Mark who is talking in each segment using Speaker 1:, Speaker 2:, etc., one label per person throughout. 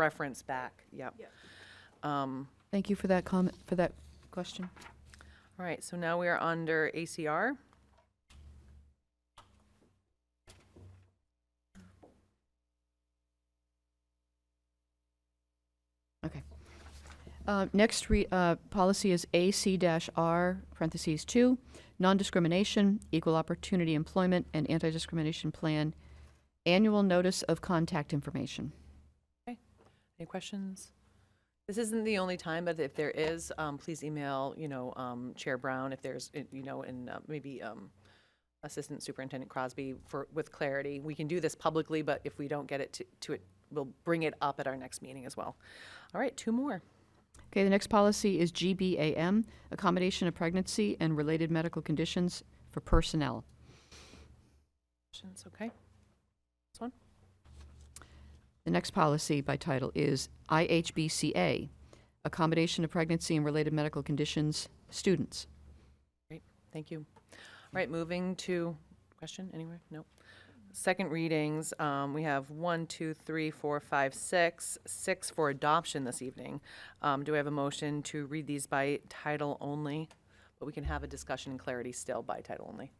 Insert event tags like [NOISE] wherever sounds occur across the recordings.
Speaker 1: reference back, yep. Um,
Speaker 2: Thank you for that comment, for that question.
Speaker 1: All right, so now we are under ACR.
Speaker 2: Okay. Uh, Next, re- uh, policy is AC-R, parentheses, 2, non-discrimination, equal opportunity employment, and anti-discrimination plan, annual notice of contact information.
Speaker 1: Any questions? This isn't the only time, but if there is, um, please email, you know, um, Chair Brown, if there's, uh, you know, and uh, maybe um, Assistant Superintendent Crosby for, with clarity. We can do this publicly, but if we don't get it to- to it, we'll bring it up at our next meeting as well. All right, two more.
Speaker 2: Okay, the next policy is GBAM, accommodation of pregnancy and related medical conditions for personnel.
Speaker 1: Questions, okay?
Speaker 2: The next policy by title is IHBCA, accommodation of pregnancy and related medical conditions, students.
Speaker 1: Great, thank you. All right, moving to, question anywhere? No. Second readings, um, we have one, two, three, four, five, six, six for adoption this evening. Um, do I have a motion to read these by title only? But we can have a discussion and clarity still by title only.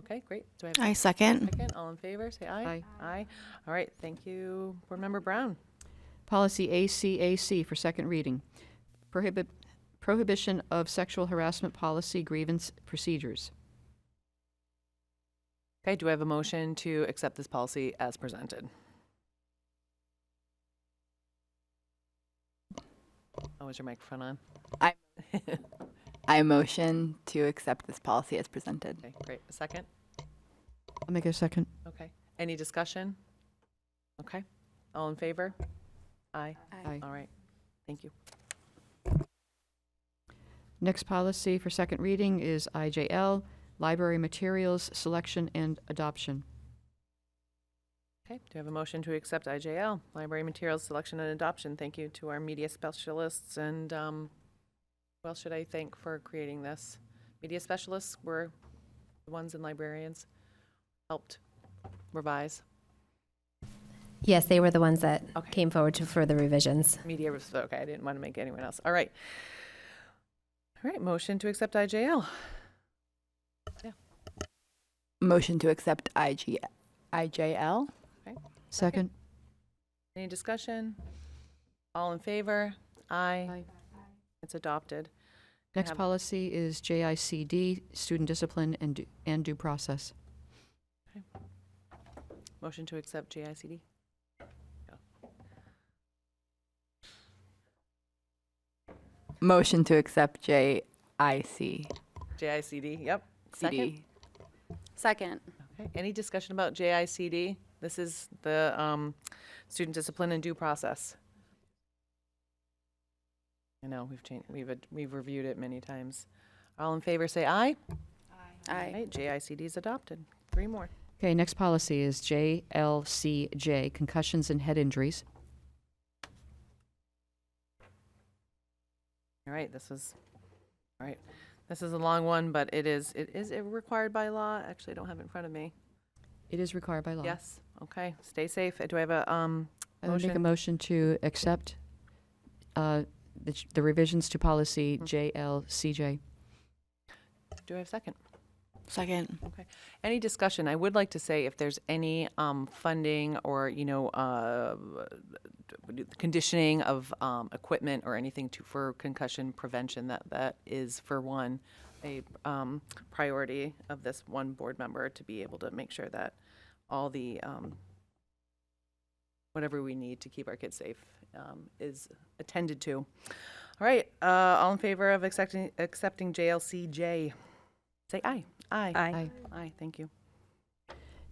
Speaker 1: Okay, great. Do I have
Speaker 3: I second.
Speaker 1: a second? All in favor, say aye.
Speaker 2: Aye.
Speaker 1: Aye. All right, thank you, Board Member Brown.
Speaker 2: Policy ACAC for second reading. Prohibit, prohibition of sexual harassment policy grievance procedures.
Speaker 1: Okay, do I have a motion to accept this policy as presented? Oh, is your microphone on?
Speaker 3: I- I motion to accept this policy as presented.
Speaker 1: [LAUGHS] Okay, great. A second?
Speaker 2: I'll make a second.
Speaker 1: Okay. Any discussion? Okay. All in favor? Aye.
Speaker 2: Aye.
Speaker 1: All right. Thank you.
Speaker 2: Next policy for second reading is IJL, library materials, selection and adoption.
Speaker 1: Okay, do I have a motion to accept IJL, library materials selection and adoption? Thank you to our media specialists and, um, who else should I thank for creating this? Media specialists were the ones and librarians helped revise.
Speaker 4: Yes, they were the ones that
Speaker 1: Okay.
Speaker 4: came forward to further revisions.
Speaker 1: Media was, okay, I didn't want to make anyone else. All right. All right, motion to accept IJL.
Speaker 3: Motion to accept IG, IJL.
Speaker 2: Second?
Speaker 1: Any discussion? All in favor? Aye. It's adopted. I
Speaker 2: Next
Speaker 1: have-
Speaker 2: policy is JICD, student discipline and, due- and due process.
Speaker 1: Motion to accept JICD.
Speaker 3: Motion to accept JIC.
Speaker 1: JICD, yep. Second.
Speaker 3: CD.
Speaker 5: Second.
Speaker 1: Okay, Any discussion about JICD? This is the um, student discipline and due process. I know, we've changed, we've, ad- we've reviewed it many times. All in favor, say aye.
Speaker 5: Aye.
Speaker 1: Right, JICD is adopted. Three more.
Speaker 2: Okay, next policy is JLCJ, concussions and head injuries.
Speaker 1: All right, this is, all right, this is a long one, but it is, it is required by law. Actually, I don't have it in front of me.
Speaker 2: It is required by law.
Speaker 1: Yes, okay, stay safe. Do I have a, um,
Speaker 2: I would make a
Speaker 1: Motion.
Speaker 2: motion to accept uh, the ch- the revisions to policy JLCJ.
Speaker 1: do I have a second?
Speaker 3: Second.
Speaker 1: Any discussion? I would like to say if there's any um, funding or, you know, uh, conditioning of um, equipment or anything to, for concussion prevention, that, that is for one, a um, priority of this one board member to be able to make sure that all the, um, whatever we need to keep our kids safe um, is attended to. All right, uh, all in favor of accepting, accepting JLCJ? Say aye. Aye.
Speaker 2: Aye.
Speaker 1: Aye, thank you.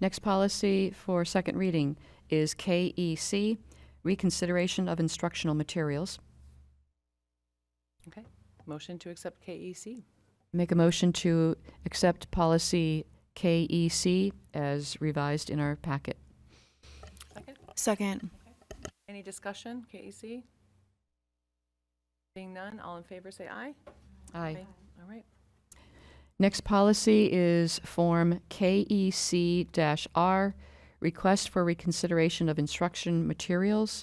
Speaker 2: Next policy for second reading is KEC, reconsideration of instructional materials.
Speaker 1: Okay. Motion to accept E KEC.
Speaker 2: Make a motion to accept policy KEC as revised in our packet.
Speaker 1: Second.
Speaker 3: Second.
Speaker 1: Any discussion, KEC? Being none, all in favor, say aye. Aye. All right.
Speaker 2: E Next policy is Form KEC-R, request for reconsideration of instruction materials,